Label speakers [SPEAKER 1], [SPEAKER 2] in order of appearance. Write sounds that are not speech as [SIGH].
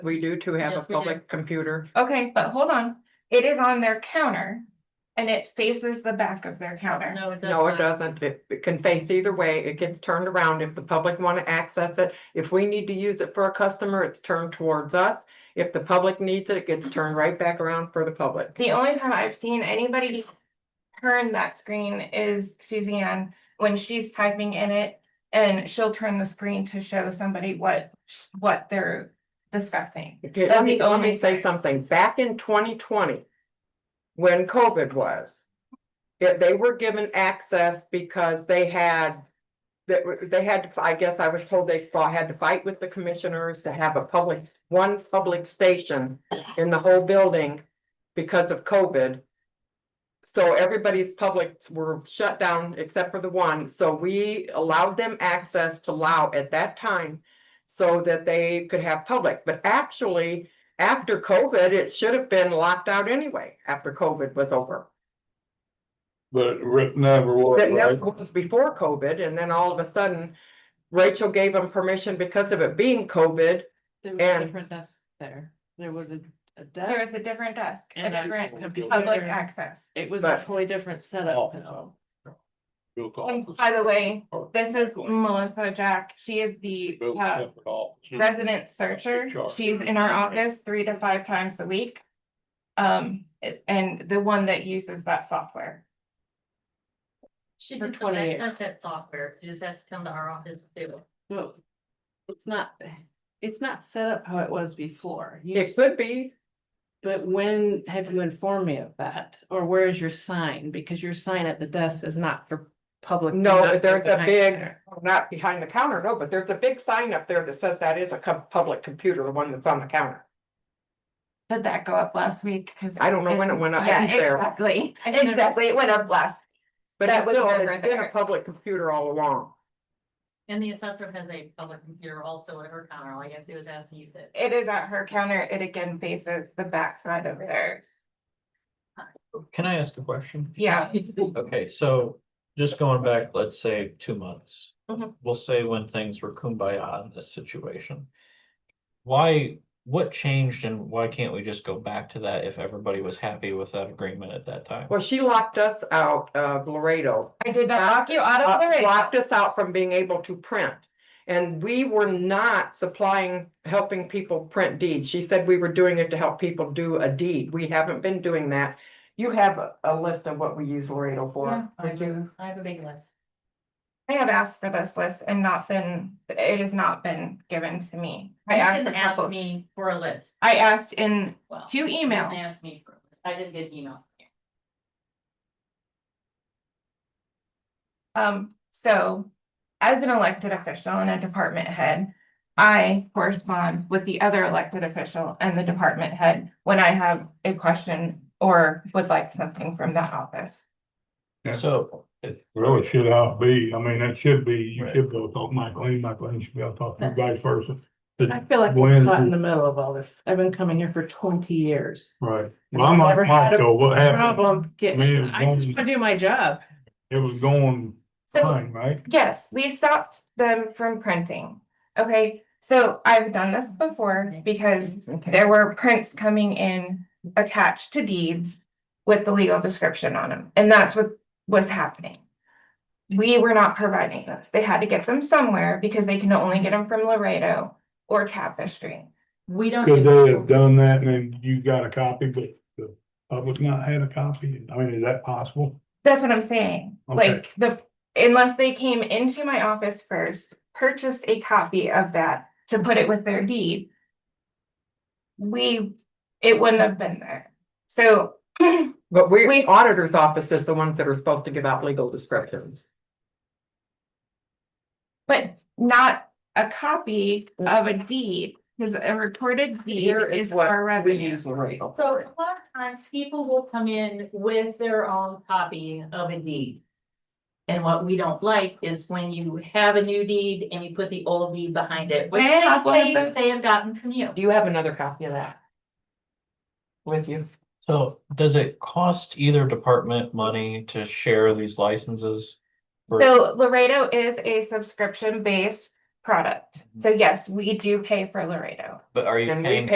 [SPEAKER 1] We do too have a
[SPEAKER 2] Yes, we do.
[SPEAKER 1] public computer.
[SPEAKER 3] Okay, but hold on, it is on their counter and it faces the back of their counter.
[SPEAKER 2] No, it does
[SPEAKER 1] No, it
[SPEAKER 2] not.
[SPEAKER 1] doesn't. It it can face either way. It gets turned around if the public want to access it. If we need to use it for a customer, it's turned towards us. If the public needs it, it gets turned right back around for the public.
[SPEAKER 3] The only time I've seen anybody turn that screen is Suzanne, when she's typing in it. And she'll turn the screen to show somebody what, what they're discussing.
[SPEAKER 1] Okay,
[SPEAKER 3] That's
[SPEAKER 1] let me,
[SPEAKER 3] the
[SPEAKER 1] let me
[SPEAKER 3] only
[SPEAKER 1] say
[SPEAKER 3] thing.
[SPEAKER 1] something. Back in twenty twenty, when COVID was, if they were given access because they had, that, were- they had, I guess I was told they fought- had to fight with the commissioners to have a public, one public station in the whole building because of COVID. So everybody's publics were shut down except for the one, so we allowed them access to Lao at that time so that they could have public, but actually, after COVID, it should have been locked out anyway, after COVID was over.
[SPEAKER 4] But it never was,
[SPEAKER 1] That never
[SPEAKER 4] right?
[SPEAKER 1] was before COVID, and then all of a sudden, Rachel gave them permission because of it being COVID.
[SPEAKER 5] There was a
[SPEAKER 1] And-
[SPEAKER 5] different desk there. There was a, a
[SPEAKER 3] There is
[SPEAKER 5] desk.
[SPEAKER 3] a different desk, a
[SPEAKER 5] And a
[SPEAKER 3] different
[SPEAKER 5] computer.
[SPEAKER 3] public access.
[SPEAKER 5] It was a
[SPEAKER 1] But-
[SPEAKER 5] totally different
[SPEAKER 4] Oh.
[SPEAKER 5] setup though.
[SPEAKER 4] Built
[SPEAKER 3] And
[SPEAKER 4] office.
[SPEAKER 3] by the way,
[SPEAKER 4] Or-
[SPEAKER 3] this is Melissa Jack. She is the
[SPEAKER 4] Built
[SPEAKER 3] uh,
[SPEAKER 4] separate office.
[SPEAKER 3] resident searcher. She's in our office three to five times a week. Um, it- and the one that uses that software.
[SPEAKER 2] She
[SPEAKER 5] For
[SPEAKER 2] did some
[SPEAKER 5] 28.
[SPEAKER 2] that software, she just has to come to our office to do it.
[SPEAKER 5] No, It's not, it's not set up how it was before. You
[SPEAKER 1] It could be,
[SPEAKER 5] But when have you informed me of that? Or where is your sign? Because your sign at the desk is not for public.
[SPEAKER 1] No,
[SPEAKER 5] not for
[SPEAKER 1] there's a
[SPEAKER 5] behind
[SPEAKER 1] big-
[SPEAKER 5] there.
[SPEAKER 1] not behind the counter, no, but there's a big sign up there that says that is a co- public computer, the one that's on the counter.
[SPEAKER 3] Did that go up last week? Cause.
[SPEAKER 1] I don't know when it
[SPEAKER 3] it's-
[SPEAKER 1] went up, I
[SPEAKER 3] Yeah,
[SPEAKER 1] was there.
[SPEAKER 3] exactly,
[SPEAKER 5] I've never
[SPEAKER 3] exactly. It went up last.
[SPEAKER 1] But
[SPEAKER 3] That
[SPEAKER 1] it's
[SPEAKER 3] was
[SPEAKER 1] still,
[SPEAKER 3] never
[SPEAKER 1] it's been a
[SPEAKER 3] there.
[SPEAKER 1] public computer all along.
[SPEAKER 2] And the assessor has a public computer also at her counter, all you have to do is ask to use it.
[SPEAKER 3] It is at her counter. It again faces the backside of theirs.
[SPEAKER 6] Can I ask a question?
[SPEAKER 3] Yeah.
[SPEAKER 1] [LAUGHS]
[SPEAKER 6] Okay, so just going back, let's say, two months.
[SPEAKER 3] Mhm.
[SPEAKER 6] We'll say when things were kumbaya in this situation. Why, what changed and why can't we just go back to that if everybody was happy with that agreement at that time?
[SPEAKER 1] Well, she locked us out of Laredo
[SPEAKER 3] I did not lock you out of
[SPEAKER 1] uh,
[SPEAKER 3] Laredo.
[SPEAKER 1] locked us out from being able to print. And we were not supplying, helping people print deeds. She said we were doing it to help people do a deed. We haven't been doing that. You have a, a list of what we use Laredo
[SPEAKER 2] Yeah,
[SPEAKER 1] for.
[SPEAKER 2] I
[SPEAKER 1] would you?
[SPEAKER 2] do. I have a big list.
[SPEAKER 3] I have asked for this list and not been, it has not been given to me. I
[SPEAKER 2] You
[SPEAKER 3] asked,
[SPEAKER 2] didn't
[SPEAKER 3] a
[SPEAKER 2] ask
[SPEAKER 3] couple-
[SPEAKER 2] me for a list.
[SPEAKER 3] I asked in
[SPEAKER 2] Well,
[SPEAKER 3] two
[SPEAKER 2] you didn't
[SPEAKER 3] emails.
[SPEAKER 2] Ask me for a list. I didn't get an email.
[SPEAKER 3] Um, so as an elected official and a department head, I correspond with the other elected official and the department head when I have a question or would like something from that office.
[SPEAKER 4] Yeah.
[SPEAKER 6] So, it-
[SPEAKER 4] Really should have be, I mean, that should be, you
[SPEAKER 6] Right.
[SPEAKER 4] should go talk Michael, and Michael, and you should be able to talk to you vice versa.
[SPEAKER 5] I feel like
[SPEAKER 4] When-
[SPEAKER 5] I'm caught in the middle of all this. I've been coming here for twenty years.
[SPEAKER 4] Right, well, I'm
[SPEAKER 5] Never
[SPEAKER 4] like
[SPEAKER 5] had a
[SPEAKER 4] Michael, what happened?
[SPEAKER 5] Problem getting,
[SPEAKER 4] Man,
[SPEAKER 5] I just
[SPEAKER 4] don't-
[SPEAKER 5] wanna do my job.
[SPEAKER 4] It was going
[SPEAKER 3] So
[SPEAKER 4] fine, right?
[SPEAKER 3] yes, we stopped them from printing. Okay, so I've done this before because there were prints coming in attached to deeds with the legal description on them, and that's what was happening. We were not providing those. They had to get them somewhere because they can only get them from Laredo or Tapestry.
[SPEAKER 2] We don't.
[SPEAKER 4] Could
[SPEAKER 2] get
[SPEAKER 4] they have
[SPEAKER 2] approval.
[SPEAKER 4] done that and then you got a copy, but the public not had a copy? I mean, is that possible?
[SPEAKER 3] That's what I'm saying.
[SPEAKER 4] Okay.
[SPEAKER 3] Like the, unless they came into my office first, purchased a copy of that to put it with their deed. We, it wouldn't have been there. So
[SPEAKER 1] But
[SPEAKER 3] We-
[SPEAKER 1] we, auditor's office is the ones that are supposed to give out legal descriptions.
[SPEAKER 3] But not a copy of a deed, because a recorded deed
[SPEAKER 1] Mm. Here is
[SPEAKER 3] is
[SPEAKER 1] what
[SPEAKER 3] our
[SPEAKER 1] we
[SPEAKER 3] revenue.
[SPEAKER 1] use Laredo.
[SPEAKER 2] So a lot of times people will come in with their own copy of a deed. And what we don't like is when you have a new deed and you put the old deed behind it, which
[SPEAKER 3] May I have one of
[SPEAKER 2] they,
[SPEAKER 3] those?
[SPEAKER 2] they have gotten from you.
[SPEAKER 1] Do you have another copy of that? With you?
[SPEAKER 6] so does it cost either department money to share these licenses? Or-
[SPEAKER 3] So Laredo is a
[SPEAKER 1] Mm-hmm.
[SPEAKER 3] subscription-based product. So yes, we do pay for Laredo.
[SPEAKER 6] But are you
[SPEAKER 1] And we
[SPEAKER 6] paying